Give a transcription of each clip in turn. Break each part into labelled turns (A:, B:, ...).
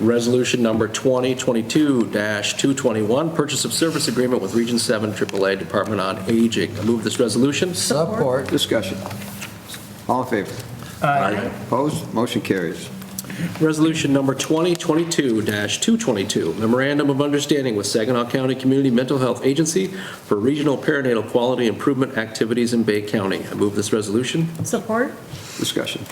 A: Resolution number 2022-221, purchase of service agreement with Region 7 AAA Department on Aging. I move this resolution.
B: Support.
C: Discussion. All in favor? Opposed? Motion carries.
A: Resolution number 2022-222, memorandum of understanding with Saginaw County Community Mental Health Agency for regional perinatal quality improvement activities in Bay County. I move this resolution.
D: Support?
C: Discussion.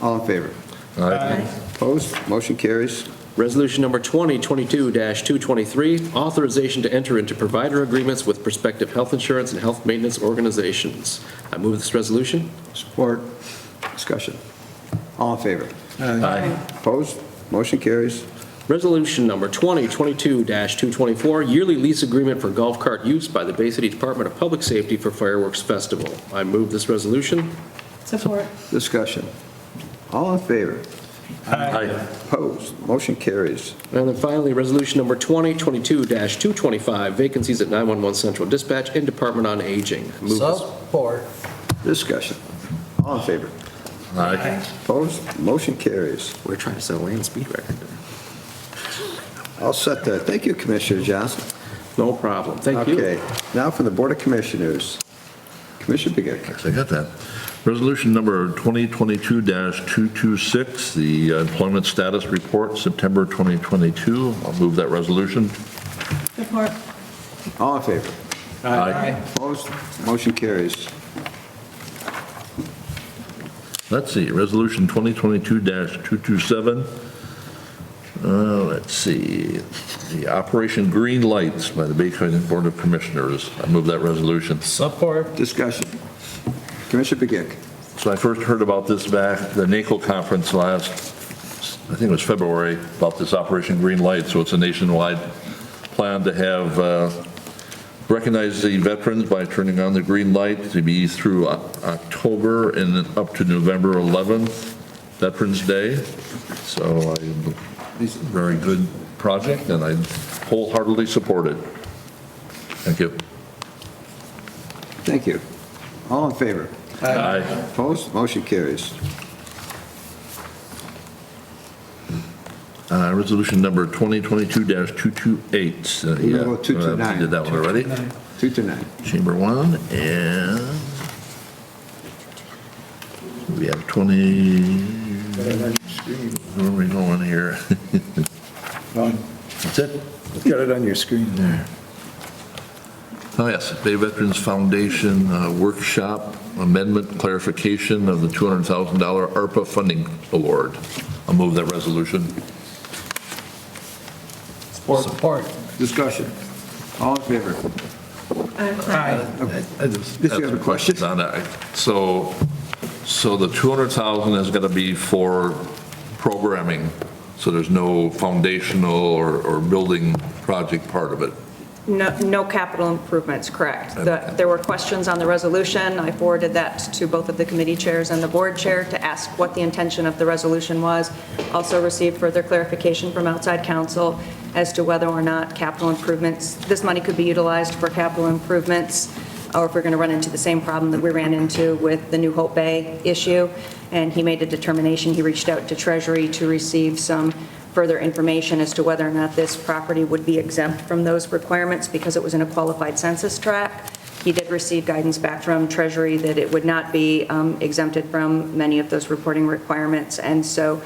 C: All in favor? Opposed? Motion carries.
A: Resolution number 2022-223, authorization to enter into provider agreements with prospective health insurance and health maintenance organizations. I move this resolution.
C: Support. Discussion. All in favor? Opposed? Motion carries.
A: Resolution number 2022-224, yearly lease agreement for golf cart use by the Bay City Department of Public Safety for fireworks festival. I move this resolution.
D: Support?
C: Discussion. All in favor? Opposed? Motion carries.
A: And then finally, resolution number 2022-225, vacancies at 911 Central Dispatch and Department on Aging. I Move this.
B: Support.
C: Discussion. All in favor? Opposed? Motion carries.
A: We're trying to set a land speed record.
C: All set there. Thank you, Commissioner Johnson.
A: No problem. Thank you.
C: Okay, now for the Board of Commissioners. Commissioner Begic.
E: Yes, I got that. Resolution number 2022-226, the employment status report, September 2022. I'll move that resolution.
D: Support?
C: All in favor?
E: Aye.
C: Opposed? Motion carries.
E: Let's see, resolution 2022-227. Uh, Let's see, the Operation Green Lights by the Bay County Board of Commissioners. I move that resolution.
B: Support.
C: Discussion. Commissioner Begic.
E: So I first heard about this back, at the NACO conference last, I think it was February, about this Operation Green Light. So it's a nationwide plan to have, uh, recognize the veterans by turning on the green light to be through Oc- October and then up to November 11th, Veterans Day. So I, it's a very good project and I wholeheartedly support it. Thank you.
C: Thank you. All in favor?
E: Aye.
C: Opposed? Motion carries.
E: Uh, Resolution number 2022-228. uh,
C: We're
E: yeah,
C: gonna go two to
E: uh,
C: nine.
E: We did that one already.
C: Two to nine.
E: Chamber one, and we have 20, where are we going here? That's it?
F: Got it on your screen there.
E: Oh, yes, Bay Veterans Foundation uh, Workshop Amendment Clarification of the $200,000 ARPA Funding Award. I'll move that resolution.
B: Support.
C: Discussion. All in favor?
B: Aye.
E: I just
C: Yes, you
E: have
C: have a
E: some questions on that. So, so the 200,000 is going to be for programming, so there's no foundational or, or building project part of it.
G: No, no capital improvements, correct. The- There were questions on the resolution. I forwarded that to both of the committee chairs and the board chair to ask what the intention of the resolution was. Also received further clarification from outside counsel as to whether or not capital improvements, this money could be utilized for capital improvements, or if we're going to run into the same problem that we ran into with the New Hope Bay issue. And he made a determination, he reached out to Treasury to receive some further information as to whether or not this property would be exempt from those requirements because it was in a qualified census tract. He did receive guidance back from Treasury that it would not be um, exempted from many of those reporting requirements. And so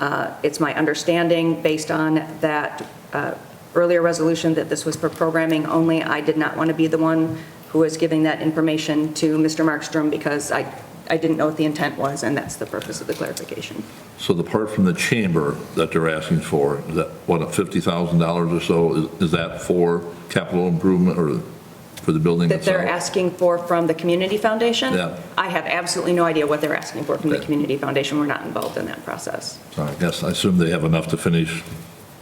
G: uh, it's my understanding, based on that uh, earlier resolution, that this was for programming only. I did not want to be the one who was giving that information to Mr. Markstrom because I, I didn't know what the intent was, and that's the purpose of the clarification.
E: So the part from the chamber that they're asking for, is that, what, $50,000 or so, is- is that for capital improvement or for the building
G: That they're
E: itself?
G: asking for from the Community Foundation?
E: Yeah.
G: I have absolutely no idea what they're asking for from the
E: Okay.
G: Community Foundation. We're not involved in that process.
E: So I guess, I assume they have enough to finish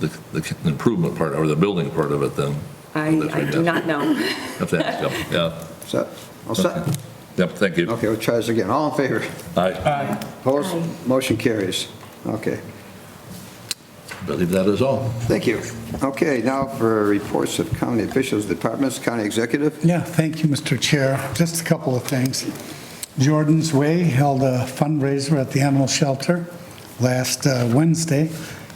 E: the, the improvement part or the building part of it then.
G: I,
E: That's
G: I
E: right,
G: do
E: yeah.
G: not know.
E: If that's, yeah, yeah,
C: Set? All set?
E: yep, thank you.
C: Okay, we'll try this again. All in favor?
E: Aye.
C: Opposed? Motion carries. Okay,
E: believe that is all.
C: thank you. Okay, now for reports of county officials, departments, county executive.
H: Yeah, thank you, Mr. Chair. Just a couple of things. Jordan's Way held a fundraiser at the animal shelter last uh, Wednesday